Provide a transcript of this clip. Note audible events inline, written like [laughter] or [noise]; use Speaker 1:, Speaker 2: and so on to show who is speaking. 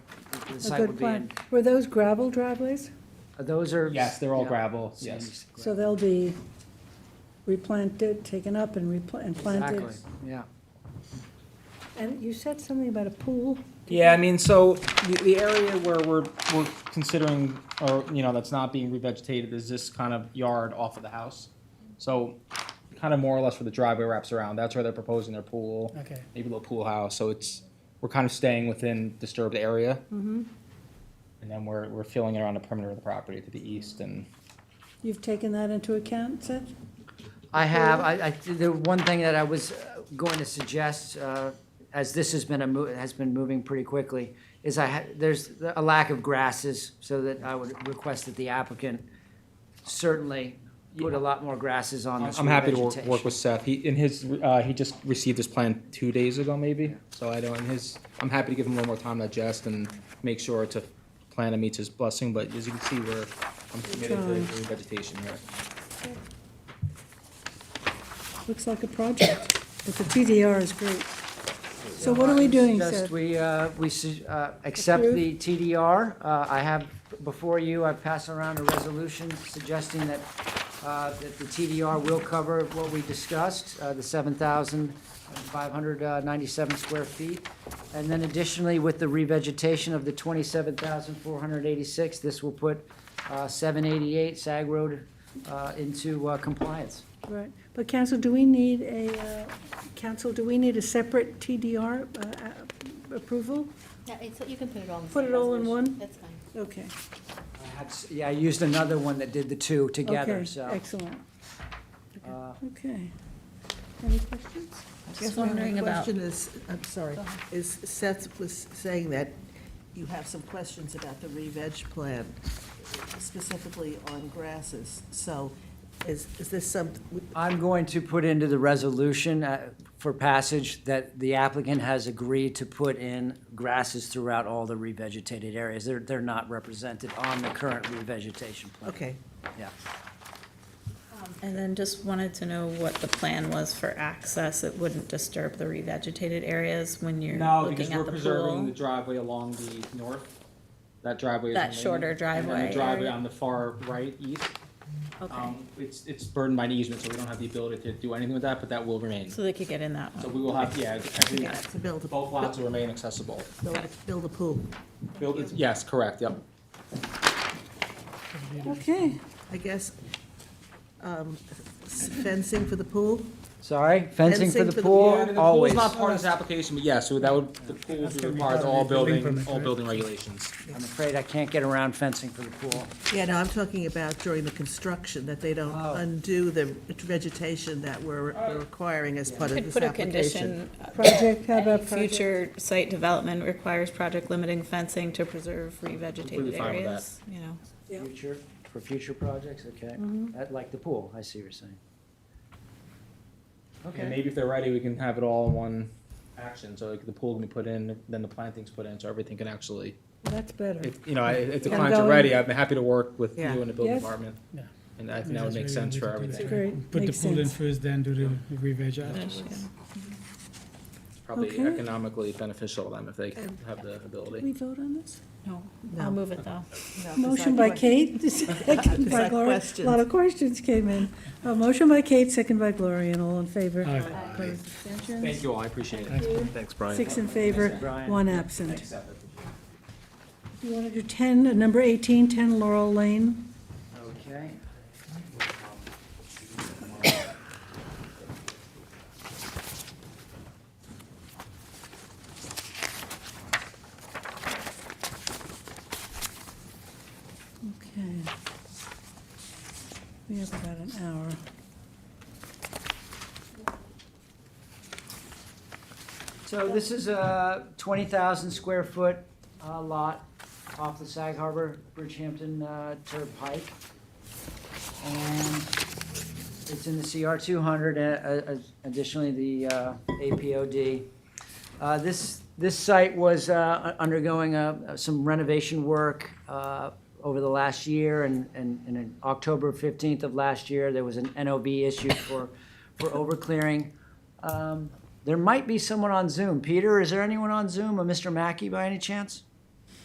Speaker 1: the
Speaker 2: a
Speaker 1: site
Speaker 2: good
Speaker 1: would be in. uh,
Speaker 2: plan. Were those gravel driveways?
Speaker 1: Those are.
Speaker 3: Yes, they're all
Speaker 1: yeah,
Speaker 3: gravel,
Speaker 1: sand
Speaker 3: yes.
Speaker 2: So
Speaker 1: gravel.
Speaker 2: they'll be replanted, taken up and repla- and planted?
Speaker 1: Exactly, yeah.
Speaker 2: And you said something about a pool?
Speaker 3: Yeah, I mean, so the, the area where we're, we're considering, or, you know, that's not being revegetated is this kind of yard off of the house. So kind of more or less where the driveway wraps around, that's where they're proposing their pool.
Speaker 4: Okay.
Speaker 3: Maybe a little pool house, so it's, we're kind of staying within disturbed area. And then we're, we're filling it around the perimeter of the property to the east and.
Speaker 2: You've taken that into account, Seth?
Speaker 1: I have, I, I, the one thing that I was uh, going to suggest, uh, as this has been a mo, has been moving pretty quickly, is I, ha- there's a lack of grasses, so that I would request that the applicant certainly put a lot more grasses on this
Speaker 3: I'm happy to work, work
Speaker 1: revegetation.
Speaker 3: with Seth. He, in his, uh, he just received his plan two days ago, maybe, so I don't, in his, I'm happy to give him a little more time to adjust and make sure to plan that meets his blessing, but as you can see, we're, I'm committed to vegetation here.
Speaker 2: Looks like a project, but the TDR is great. So what are we doing,
Speaker 1: Just,
Speaker 2: Seth?
Speaker 1: we, uh, we, su- uh, accept
Speaker 2: Approve?
Speaker 1: the TDR. Uh, I have, before you, I pass around a resolution suggesting that, uh, that the TDR will cover what we discussed, uh, the seven thousand five hundred uh, ninety-seven square feet. And then additionally, with the revegetation of the twenty-seven thousand four hundred eighty-six, this will put, uh, seven eighty-eight Sag Road, uh, into, uh, compliance.
Speaker 2: Right, but council, do we need a, uh, council, do we need a separate TDR uh, uh, approval?
Speaker 5: Yeah, it's, you can put it all in the
Speaker 2: Put
Speaker 5: same
Speaker 2: it all in
Speaker 5: resolution.
Speaker 2: one?
Speaker 5: That's fine.
Speaker 2: Okay,
Speaker 1: I had s- Yeah, I used another one that did the two together,
Speaker 2: okay,
Speaker 1: so.
Speaker 2: excellent,
Speaker 1: uh,
Speaker 2: okay. Any questions?
Speaker 6: Just
Speaker 4: My only
Speaker 6: wondering about,
Speaker 4: Question is, I'm sorry,
Speaker 6: Go ahead.
Speaker 4: is Seth was saying that you have some questions about the re-veg plan, specifically on grasses. So is, is this some,
Speaker 1: I'm going to put into the resolution uh, for passage that the applicant has agreed to put in grasses throughout all the revegetated areas. They're, they're not represented on the current revegetation plan.
Speaker 4: okay,
Speaker 1: Yeah.
Speaker 6: and then just wanted to know what the plan was for access. It wouldn't disturb the revegetated areas when you're looking at the pool.
Speaker 3: driveway along the north, that driveway
Speaker 6: That remaining, shorter and then the driveway driveway area. on
Speaker 3: the far right east.
Speaker 6: Okay,
Speaker 3: Um, it's, it's burdened by an easement, so we don't have the ability to do anything with that, but that will remain.
Speaker 6: so they could get in that
Speaker 3: So
Speaker 6: one.
Speaker 3: we will have, yeah, every,
Speaker 4: yeah, to build a,
Speaker 3: both lots will remain accessible.
Speaker 4: build a- build a pool.
Speaker 3: Build it- yes, correct, yep.
Speaker 2: Okay,
Speaker 4: I guess um, fencing for the pool?
Speaker 1: Sorry, fencing for
Speaker 4: Fencing
Speaker 1: the
Speaker 4: for the-
Speaker 3: Yeah,
Speaker 1: pool,
Speaker 3: the
Speaker 1: always.
Speaker 3: pool's not part of this application, but yes, so that would, the pool would be required to all building, all building regulations.
Speaker 1: I'm afraid I can't get around fencing for the pool.
Speaker 4: Yeah, no, I'm talking about during the construction, that they don't
Speaker 1: Oh.
Speaker 4: undo the vegetation that we're we're requiring as part of
Speaker 6: Could
Speaker 4: this
Speaker 6: put a
Speaker 4: application.
Speaker 6: condition, uh,
Speaker 2: project, how
Speaker 6: any
Speaker 2: about project?
Speaker 6: future site development requires project limiting fencing to preserve
Speaker 3: Completely
Speaker 6: revegetated
Speaker 3: fine with
Speaker 6: areas, you know.
Speaker 2: Yeah.
Speaker 1: Future, for future projects, okay. That- Like the pool, I see what you're saying.
Speaker 3: And
Speaker 1: Okay,
Speaker 3: maybe if they're ready, we can have it all in one action, so like the pool can be put in, then the planting's put in, so everything can actually,
Speaker 2: That's better.
Speaker 3: if, you know, if if the
Speaker 2: And
Speaker 3: clients are
Speaker 2: going-
Speaker 3: ready, I'd be happy to work with you
Speaker 4: Yeah.
Speaker 3: and the building
Speaker 2: Yes.
Speaker 3: department.
Speaker 7: Yeah.
Speaker 3: And I think that would make sense for everything.
Speaker 2: Great,
Speaker 7: Put the
Speaker 2: makes
Speaker 7: pool in
Speaker 2: sense.
Speaker 7: first, then do the re-veg afterwards.
Speaker 6: yeah.
Speaker 3: It's probably
Speaker 2: Okay.
Speaker 3: economically beneficial to them if they have the
Speaker 2: Did
Speaker 3: ability.
Speaker 2: we vote on this?
Speaker 6: No,
Speaker 4: No.
Speaker 6: I'll move it though.
Speaker 4: No, 'cause
Speaker 2: Motion
Speaker 4: I-
Speaker 2: by Kate, [laughs] second by
Speaker 4: Like
Speaker 2: Gloria. A
Speaker 4: questions.
Speaker 2: lot of questions came in. A motion by Kate, second by Gloria, and all in favor.
Speaker 7: Aye.
Speaker 2: Opposed, abstentions?
Speaker 3: Thank you all, I appreciate it.
Speaker 8: Thanks, Brian.
Speaker 2: Six in favor,
Speaker 1: Brian.
Speaker 2: one absent. Do you want to do 10, uh, number 18, 10 Laurel Lane?
Speaker 1: okay.
Speaker 2: Okay. We have about an hour.
Speaker 1: So this is a 20,000 square foot uh, lot off the Sag Harbor Bridgehampton uh, Turnpike. And it's in the CR 200, uh, uh, additionally the uh, APOD. Uh, This, this site was uh, undergoing uh, some renovation work uh, over the last year, and, and and in October 15th of last year, there was an NOB issued for, for overclearing. Um, There might be someone on Zoom. Peter, is there anyone on Zoom, a Mr. Mackey by any chance?